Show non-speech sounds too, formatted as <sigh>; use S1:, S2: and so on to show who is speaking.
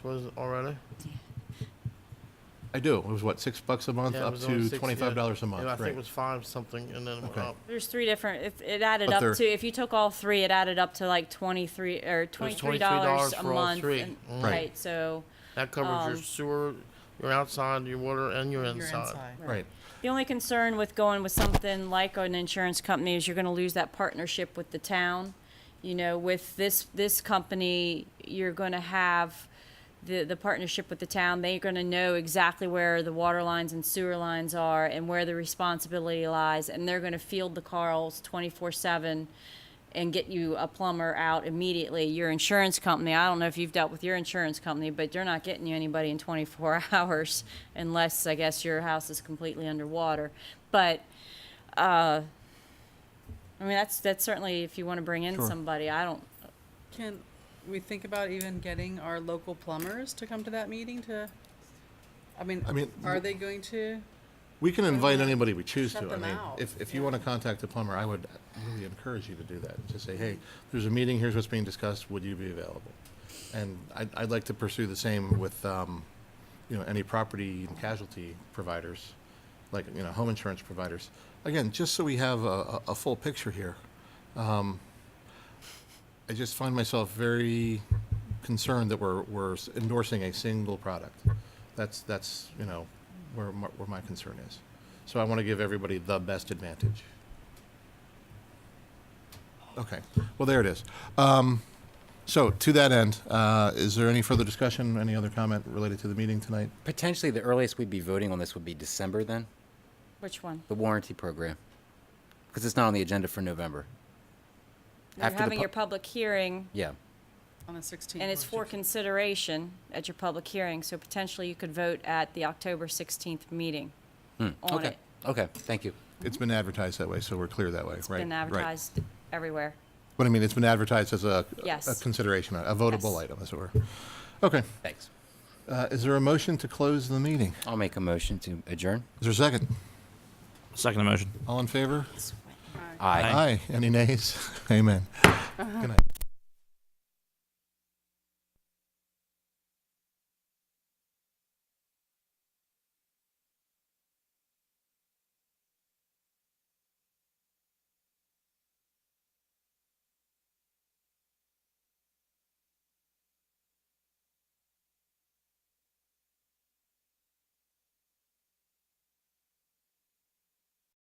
S1: was already?
S2: I do. It was what, six bucks a month,
S1: Yeah, it
S2: up
S1: was only
S2: to
S1: six- yeah.
S2: twenty-five dollars a
S1: Yeah, I
S2: month,
S1: think it
S2: right?
S1: was five something and then it went
S2: Okay.
S1: up.
S3: There's three different, if it added
S2: But
S3: up
S2: they're-
S3: to, if you took all three, it added up to like twenty-three, or
S1: It was
S3: twenty-three dollars a
S1: for all
S3: month.
S1: three.
S3: and-
S1: Mm.
S2: Right.
S3: Right, so,
S1: That covers your
S3: Um,
S1: sewer, your outside, your water, and your
S4: You're
S1: inside.
S2: Right.
S3: the only concern with going with something like an insurance company is you're gonna lose that partnership with the town. You know, with this, this company, you're gonna have the, the partnership with the town. They're gonna know exactly where the water lines and sewer lines are and where the responsibility lies, and they're gonna field the calls twenty-four-seven and get you a plumber out immediately. Your insurance company, I don't know if you've dealt with your insurance company, but they're not getting you anybody in 24 <laughs> hours unless, I guess, your house is completely underwater. But, uh, I mean, that's, that's certainly if you want to bring in
S2: Sure.
S3: somebody, I don't,
S4: Can we think about even getting our local plumbers to come to that meeting to, I mean,
S2: I mean,
S4: are they going to?
S2: We can invite anybody we choose
S4: Shut
S2: to. I
S4: them
S2: mean,
S4: out.
S2: if, if you want to contact the plumber, I would really encourage you to do that. To say, hey, there's a meeting, here's what's being discussed, would you be available? And I'd, I'd like to pursue the same with, um, you know, any property and casualty providers, like, you know, home insurance providers. Again, just so we have a, a, a full picture here. Um, I just find myself very concerned that we're, we're endorsing a single product. That's, that's, you know, where, my- where my concern is. So I want to give everybody the best advantage. Okay, well, there it is. Um, So to that end, uh, is there any further discussion, any other comment related to the meeting tonight?
S5: Potentially, the earliest we'd be voting on this would be December then,
S3: which one?
S5: the warranty program, because it's not on the agenda for November.
S3: You're
S5: After the
S3: having
S5: pu-
S3: your public hearing,
S5: Yeah,
S4: On the sixteenth.
S3: and it's for consideration at your public hearing, so potentially you could vote at the October 16th meeting on
S5: Hmm, okay,
S3: it.
S5: okay, thank you.
S2: It's been advertised that way, so we're clear that way, right?
S3: It's been
S2: Right.
S3: advertised everywhere.
S2: But I mean, it's been advertised as a
S3: Yes.
S2: a consideration, a votable
S3: Yes.
S2: item, as it were. Okay,
S5: Thanks.
S2: uh, is there a motion to close the meeting?
S5: I'll make a motion to adjourn.
S2: Is there a second?
S6: Second motion.
S2: All in favor?
S5: Aye.
S2: <laughs> Aye. Any nays? Amen. Good night.